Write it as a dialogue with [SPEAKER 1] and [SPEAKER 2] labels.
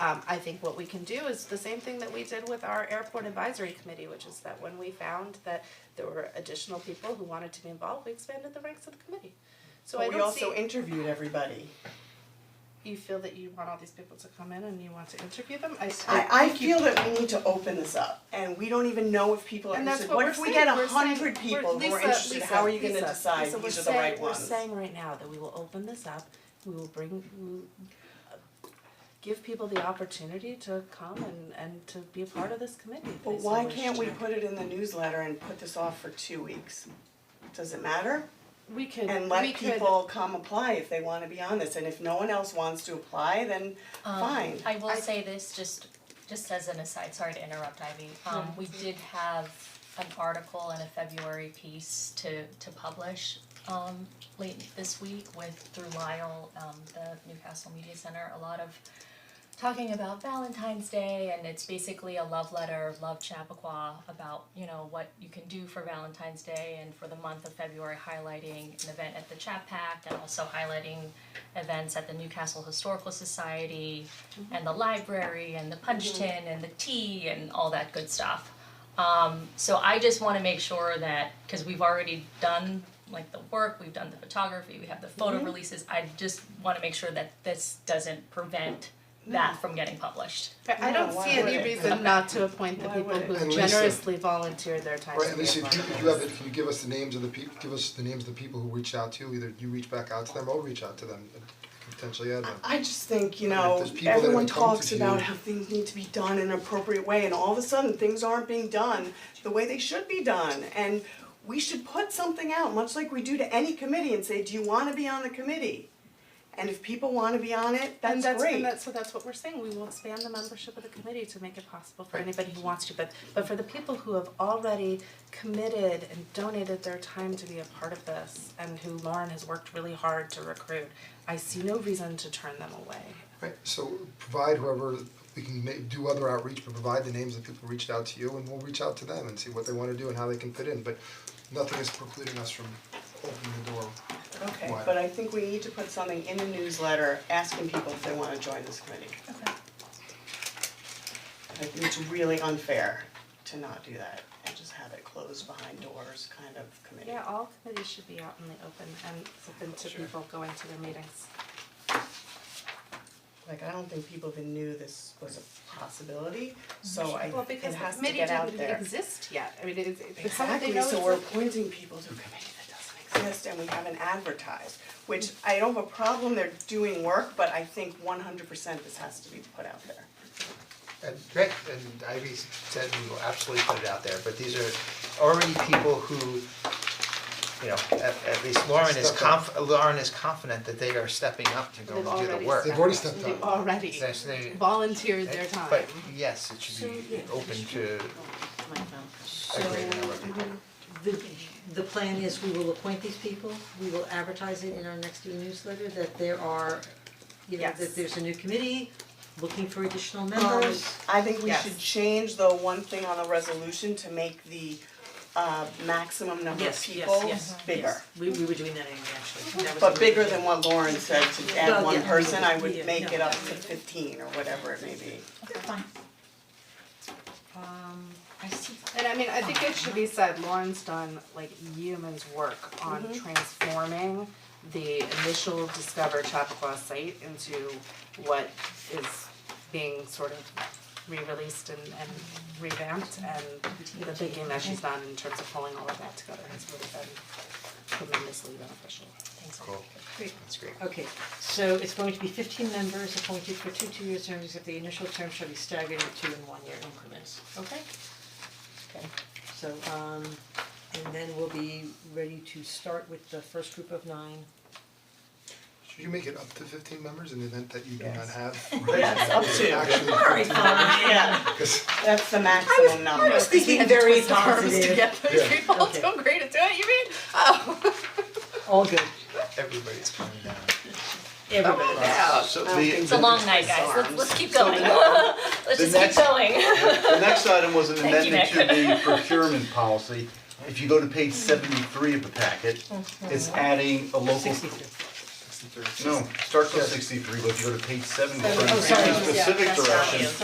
[SPEAKER 1] Um, I think what we can do is the same thing that we did with our airport advisory committee, which is that when we found that there were additional people who wanted to be involved, we expanded the ranks of the committee. So I
[SPEAKER 2] But we
[SPEAKER 1] don't
[SPEAKER 2] also
[SPEAKER 1] see,
[SPEAKER 2] interviewed everybody.
[SPEAKER 1] you feel that you want all these people to come in and you want to interview them, I
[SPEAKER 2] I, I feel that we need to open this up, and we don't even know if people are
[SPEAKER 1] And that's
[SPEAKER 2] interested,
[SPEAKER 1] what
[SPEAKER 2] what
[SPEAKER 1] we're
[SPEAKER 2] if we
[SPEAKER 1] saying,
[SPEAKER 2] get
[SPEAKER 1] we're
[SPEAKER 2] a
[SPEAKER 1] saying-
[SPEAKER 2] hundred
[SPEAKER 1] we're-
[SPEAKER 2] people who are
[SPEAKER 1] Lisa,
[SPEAKER 2] interested,
[SPEAKER 1] Lisa,
[SPEAKER 2] how are you gonna
[SPEAKER 1] Lisa,
[SPEAKER 2] decide
[SPEAKER 1] Lisa, we're
[SPEAKER 2] these are the right
[SPEAKER 1] saying- we're
[SPEAKER 2] ones?
[SPEAKER 1] saying right now that we will open this up, we will bring, we will uh, give people the opportunity to come and and to be a part of this committee if they
[SPEAKER 2] But
[SPEAKER 1] so
[SPEAKER 2] why
[SPEAKER 1] wish
[SPEAKER 2] can't we
[SPEAKER 1] to.
[SPEAKER 2] put it in the newsletter and put this off for two weeks? Does it matter?
[SPEAKER 1] We could,
[SPEAKER 2] And
[SPEAKER 1] we
[SPEAKER 2] let
[SPEAKER 1] could-
[SPEAKER 2] people come apply if they wanna be on this, and if no one else wants to apply, then
[SPEAKER 3] Um,
[SPEAKER 2] fine.
[SPEAKER 3] I will say this, just, just as an aside, sorry to interrupt Ivy, um, we did have an article and a February piece to, to publish, um, late this week with, through Lyle, um, the Newcastle Media Center, a lot of talking about Valentine's Day, and it's basically a love letter, love Chappaqua, about, you know, what you can do for Valentine's Day and for the month of February, highlighting an event at the Chap Pact, and also highlighting events at the Newcastle Historical Society, and the library, and the punch tin, and the tea, and all that good stuff. Um, so I just wanna make sure that, cause we've already done like the work, we've done the photography, we have the photo releases, I just wanna make sure that this doesn't prevent that from getting published.
[SPEAKER 1] I I don't
[SPEAKER 2] No, why
[SPEAKER 1] see
[SPEAKER 2] would
[SPEAKER 1] any
[SPEAKER 2] it?
[SPEAKER 1] reason not to appoint the
[SPEAKER 2] Why would
[SPEAKER 1] people
[SPEAKER 2] it?
[SPEAKER 1] who
[SPEAKER 4] And Lisa-
[SPEAKER 1] generously volunteer their time
[SPEAKER 4] Right,
[SPEAKER 1] to
[SPEAKER 4] and
[SPEAKER 1] be a
[SPEAKER 4] listen,
[SPEAKER 1] part
[SPEAKER 4] do
[SPEAKER 1] of
[SPEAKER 4] you
[SPEAKER 1] this.
[SPEAKER 4] have it, can you give us the names of the people, give us the names of the people who reach out to you, either you reach back out to them or reach out to them, and potentially add them.
[SPEAKER 2] I just think, you
[SPEAKER 4] I mean,
[SPEAKER 2] know,
[SPEAKER 4] there's people that
[SPEAKER 2] everyone
[SPEAKER 4] haven't come to
[SPEAKER 2] talks about
[SPEAKER 4] you.
[SPEAKER 2] how things need to be done in an appropriate way and all of a sudden things aren't being done the way they should be done and we should put something out, much like we do to any committee and say, do you wanna be on the committee? And if people wanna be on it,
[SPEAKER 1] And
[SPEAKER 2] that's
[SPEAKER 1] that's
[SPEAKER 2] great.
[SPEAKER 1] and that's so that's what we're saying, we will expand the membership of the committee to make it possible for anybody who wants to, but but for the people who have already committed and donated their time to be a part of this and who Lauren has worked really hard to recruit, I see no reason to turn them away.
[SPEAKER 4] Right, so provide whoever, we can ma- do other outreach, but provide the names of people who reached out to you, and we'll reach out to them and see what they wanna do and how they can fit in, but nothing is precluding us from opening the door.
[SPEAKER 2] Okay,
[SPEAKER 4] Why?
[SPEAKER 2] but I think we need to put something in the newsletter asking people if they wanna join this committee.
[SPEAKER 3] Okay.
[SPEAKER 2] I think it's really unfair to not do that and just have it closed behind doors kind of committee.
[SPEAKER 1] Yeah, all committees should be out in the open and open to people going to their meetings.
[SPEAKER 2] Like, I don't think people even knew this was a possibility, so I,
[SPEAKER 1] Well,
[SPEAKER 2] it
[SPEAKER 1] because
[SPEAKER 2] has
[SPEAKER 1] the
[SPEAKER 2] to
[SPEAKER 1] committee
[SPEAKER 2] get out there.
[SPEAKER 1] didn't exist yet, I mean, it it it's how would they
[SPEAKER 2] Exactly,
[SPEAKER 1] know
[SPEAKER 2] so we're
[SPEAKER 1] it's a-
[SPEAKER 2] appointing people to a committee that doesn't exist and we haven't advertised, which I don't have a problem, they're doing work, but I think one hundred percent this has to be put out there.
[SPEAKER 5] And Rick and Ivy said we will absolutely put it out there, but these are already people who, you know, at at least Lauren is
[SPEAKER 4] Stepped up.
[SPEAKER 5] conf- Lauren is confident that they are stepping up to
[SPEAKER 1] They've
[SPEAKER 5] go and do
[SPEAKER 1] already
[SPEAKER 5] the work.
[SPEAKER 4] They've already stepped
[SPEAKER 1] They've
[SPEAKER 4] up.
[SPEAKER 1] already
[SPEAKER 5] Yes, they-
[SPEAKER 1] volunteered their time.
[SPEAKER 5] But yes, it should be open to a greater number of
[SPEAKER 1] mm-hmm.
[SPEAKER 5] people.
[SPEAKER 6] The the plan is we will appoint these people, we will advertise it in our next e-newsletter that there are, you know,
[SPEAKER 1] Yes.
[SPEAKER 6] that there's a new committee looking for additional
[SPEAKER 2] Um,
[SPEAKER 6] members.
[SPEAKER 2] I think we
[SPEAKER 1] Yes.
[SPEAKER 2] should change the one thing on the resolution to make the uh maximum number of
[SPEAKER 7] Yes, yes,
[SPEAKER 2] people bigger.
[SPEAKER 7] yes,
[SPEAKER 2] Mm-hmm.
[SPEAKER 7] We we were doing that anyway, actually, that was.
[SPEAKER 2] But bigger than what Lauren said, to add
[SPEAKER 6] Well,
[SPEAKER 2] one
[SPEAKER 6] yeah.
[SPEAKER 2] person, I would
[SPEAKER 7] Yeah,
[SPEAKER 2] make
[SPEAKER 7] no.
[SPEAKER 2] it up to fifteen or whatever it may be.
[SPEAKER 3] Fine.
[SPEAKER 1] Um,
[SPEAKER 3] I see.
[SPEAKER 1] And I mean, I think it should be said, Lauren's done like yeoman's work on
[SPEAKER 2] Mm-hmm.
[SPEAKER 1] transforming the initial Discover Chappaqua site into what is being sort of re-released and and revamped and the thinking that she's done in terms of pulling all of that together has really been tremendously beneficial.
[SPEAKER 3] Thanks.
[SPEAKER 5] Cool,
[SPEAKER 6] Great.
[SPEAKER 5] that's great.
[SPEAKER 6] Okay, so it's going to be fifteen members appointed for two two-year terms, except the initial term shall be staggered at two and one-year increments, okay? Okay, so um and then we'll be ready to start with the first group of nine.
[SPEAKER 4] Should you make it up to fifteen members in the event that you do not
[SPEAKER 2] Yes.
[SPEAKER 4] have?
[SPEAKER 2] Yes, up to.
[SPEAKER 4] Actually,
[SPEAKER 2] Um, Yeah,
[SPEAKER 4] 'cause-
[SPEAKER 2] that's the maximum number.
[SPEAKER 6] thinking very
[SPEAKER 1] to
[SPEAKER 6] positive.
[SPEAKER 1] get those
[SPEAKER 4] Yeah.
[SPEAKER 1] people
[SPEAKER 6] Okay.
[SPEAKER 1] to agree to do it, you mean? Oh.
[SPEAKER 6] All good,
[SPEAKER 5] Everybody's coming down.
[SPEAKER 6] everybody.
[SPEAKER 1] Yeah.
[SPEAKER 8] So the,
[SPEAKER 3] It's a long night, guys, let's let's keep going, let's
[SPEAKER 8] The
[SPEAKER 3] just keep
[SPEAKER 8] next-
[SPEAKER 3] going.
[SPEAKER 8] the next item was an
[SPEAKER 3] Thank you,
[SPEAKER 8] amendment to the procurement policy.
[SPEAKER 3] Mm-hmm.
[SPEAKER 8] If you go to page seventy-three of the packet, it's adding a local,
[SPEAKER 6] Sixty-three.
[SPEAKER 9] sixty-three.
[SPEAKER 8] No, start from sixty-three, but if you go to page seven, it's
[SPEAKER 6] Oh,
[SPEAKER 8] in
[SPEAKER 6] sorry,
[SPEAKER 8] a specific
[SPEAKER 7] Oh, yeah, that's not
[SPEAKER 8] direction.
[SPEAKER 7] you.